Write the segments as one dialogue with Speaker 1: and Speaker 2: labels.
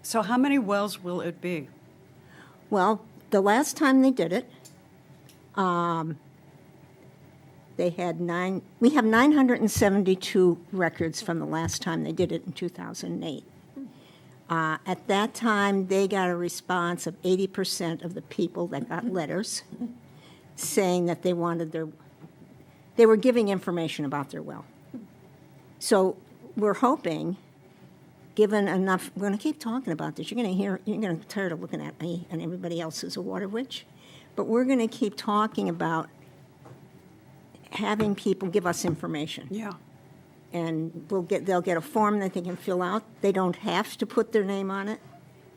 Speaker 1: So how many wells will it be?
Speaker 2: Well, the last time they did it, um, they had nine, we have 972 records from the last time they did it in 2008. Uh, at that time, they got a response of 80% of the people that got letters saying that they wanted their, they were giving information about their well. So we're hoping given enough, we're going to keep talking about this. You're going to hear, you're going to get tired of looking at me and everybody else is a water witch. But we're going to keep talking about having people give us information.
Speaker 1: Yeah.
Speaker 2: And we'll get, they'll get a form that they can fill out. They don't have to put their name on it.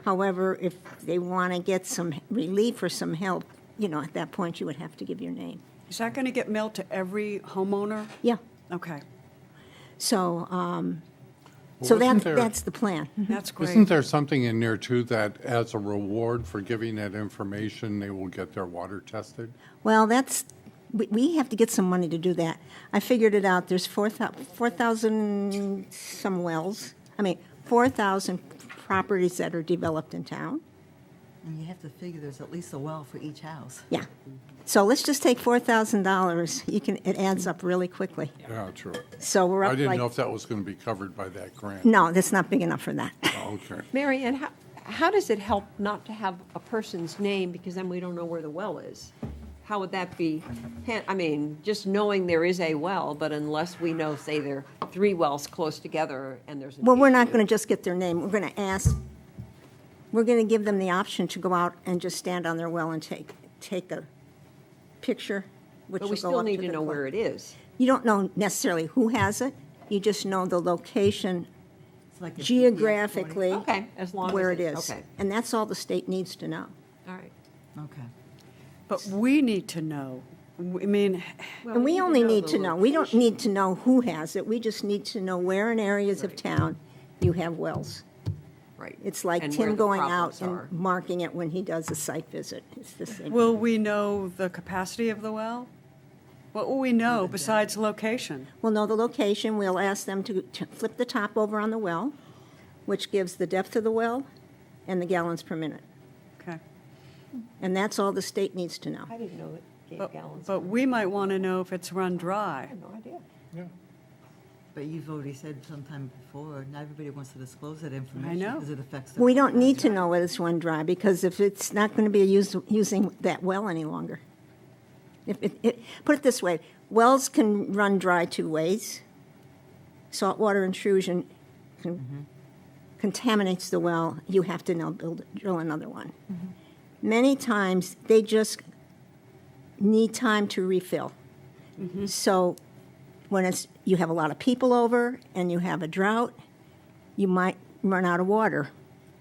Speaker 2: However, if they want to get some relief or some help, you know, at that point, you would have to give your name.
Speaker 1: Is that going to get mailed to every homeowner?
Speaker 2: Yeah.
Speaker 1: Okay,
Speaker 2: So, um,
Speaker 3: Well,
Speaker 2: so that,
Speaker 3: isn't there-
Speaker 2: that's the plan.
Speaker 1: that's great.
Speaker 3: Isn't there something in there too that as a reward for giving that information, they will get their water tested?
Speaker 2: Well, that's, we, we have to get some money to do that. I figured it out, there's four thou, four thousand some wells, I mean, four thousand properties that are developed in town.
Speaker 4: And you have to figure there's at least a well for each house.
Speaker 2: Yeah. So let's just take four thousand dollars, you can, it adds up really quickly.
Speaker 3: Yeah, true.
Speaker 2: So we're up
Speaker 3: I
Speaker 2: like.
Speaker 3: didn't know if that was going to be covered by that grant.
Speaker 2: No, that's not big enough for that.
Speaker 3: Okay.
Speaker 5: Mary Ann, how, how does it help not to have a person's name, because then we don't know where the well is? How would that be, han- I mean, just knowing there is a well, but unless we know, say, there are three wells close together and there's. an
Speaker 2: Well, we're not
Speaker 5: issue.
Speaker 2: gonna just get their name, we're gonna ask, we're gonna give them the option to go out and just stand on their well and take, take a picture, which will go up
Speaker 5: But we
Speaker 2: to the
Speaker 5: still need to know
Speaker 2: clerk.
Speaker 5: where it is.
Speaker 2: You don't know necessarily who has it, you just know the location
Speaker 4: It's like a GPS coordinate.
Speaker 2: geographically.
Speaker 5: Okay, as long as
Speaker 2: Where it
Speaker 5: it's-
Speaker 2: is.
Speaker 5: okay.
Speaker 2: And that's all the state needs to know.
Speaker 5: All right.
Speaker 4: Okay.
Speaker 1: But we need to know. W- I mean,
Speaker 2: And we only need
Speaker 5: the
Speaker 2: to know, we don't need to know who has it, we just need to know where in areas of town you have wells.
Speaker 5: Right.
Speaker 2: It's like
Speaker 5: And where
Speaker 2: Tim
Speaker 5: the
Speaker 2: going
Speaker 5: problems
Speaker 2: out and
Speaker 5: are.
Speaker 2: marking it when he does a site visit. It's the same.
Speaker 1: will we know the capacity of the well? What will we know besides location?
Speaker 2: We'll know the location, we'll ask them to to flip the top over on the well, which gives the depth of the well and the gallons per minute.
Speaker 1: Okay.
Speaker 2: And that's all the state needs to know.
Speaker 5: I didn't know it gave
Speaker 1: But,
Speaker 5: gallons.
Speaker 1: but we might want to know if it's run
Speaker 5: I
Speaker 1: dry.
Speaker 5: had no idea.
Speaker 4: But you've already said sometime before, not everybody wants to disclose that information.
Speaker 1: know.
Speaker 4: Because it affects their.
Speaker 2: We don't need to know whether it's one dry, because if it's not going to be used, using that well any longer. If, it, it, put it this way, wells can run dry two ways. Saltwater intrusion con- contaminates the well, you have to now build, drill another one. Many times, they just need time to refill. So when it's, you have a lot of people over and you have a drought, you might run out of water.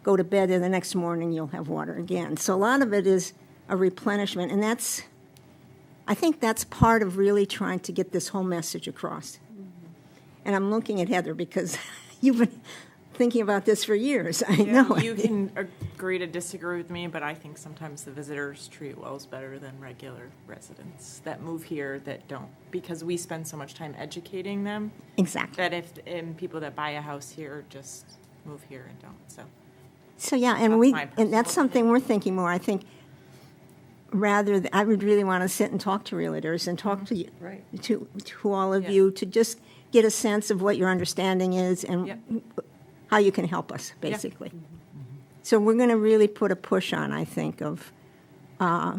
Speaker 2: Go to bed, and the next morning you'll have water again. So a lot of it is a replenishment, and that's, I think that's part of really trying to get this whole message across.
Speaker 6: Mm-hmm.
Speaker 2: And I'm looking at Heather because you've been thinking about this for years. I
Speaker 6: Yeah,
Speaker 2: know.
Speaker 6: You can agree to disagree with me, but I think sometimes the visitors treat wells better than regular residents that move here that don't, because we spend so much time educating them
Speaker 2: exactly.
Speaker 6: that if, and people that buy a house here just move here and don't, so.
Speaker 2: So yeah, and
Speaker 6: That's
Speaker 2: we
Speaker 6: my
Speaker 2: and that's
Speaker 6: personal
Speaker 2: something we're thinking more. I think rather th- I would really want to sit and talk to realtors and talk to you
Speaker 5: Right.
Speaker 2: to to all of
Speaker 6: Mm-hmm. Yeah.
Speaker 2: you to just get a sense of what your understanding is and
Speaker 6: Yep.
Speaker 2: how you can help us basically. So we're going to really put a push on, I think, of
Speaker 6: it- I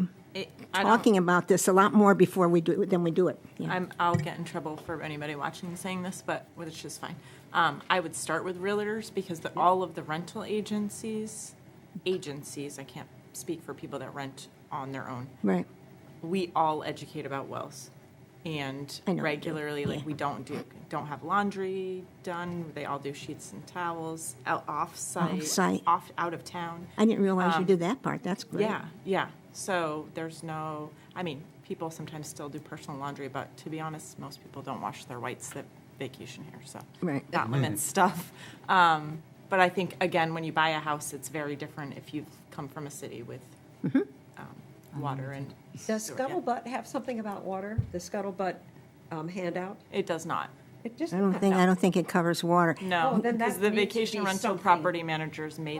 Speaker 6: don't-
Speaker 2: talking about this a lot more before we do than we do it. Yeah.
Speaker 6: I'm, I'll get in trouble for anybody watching and saying this, but which is fine. Um, I would start with realtors because the, all of the rental agencies, agencies, I can't speak for people that rent on their own.
Speaker 2: right.
Speaker 6: we all educate about wells and
Speaker 2: I know we do,
Speaker 6: regularly like
Speaker 2: yeah.
Speaker 6: we don't do don't have laundry done they all do sheets and towels out off site
Speaker 2: Off-site.
Speaker 6: off out of town
Speaker 2: I didn't realize you did that part. That's great.
Speaker 6: Um, yeah yeah so there's no i mean people sometimes still do personal laundry but to be honest most people don't wash their whites that vacation here so
Speaker 2: Right.
Speaker 6: that limits stuff um, but i think again when you buy a house it's very different if you've come from a city with
Speaker 2: Mm-hmm.
Speaker 6: um, water and
Speaker 5: Does
Speaker 6: sewer, yeah.
Speaker 5: Scuttlebutt have something about water, the Scuttlebutt um, handout?
Speaker 6: it does not
Speaker 5: It just.
Speaker 2: I don't think I don't think it covers water.
Speaker 6: No,
Speaker 5: Oh, then
Speaker 6: because
Speaker 5: that
Speaker 6: the
Speaker 5: needs to
Speaker 6: vacation
Speaker 5: be
Speaker 6: rental
Speaker 5: something.
Speaker 6: property managers made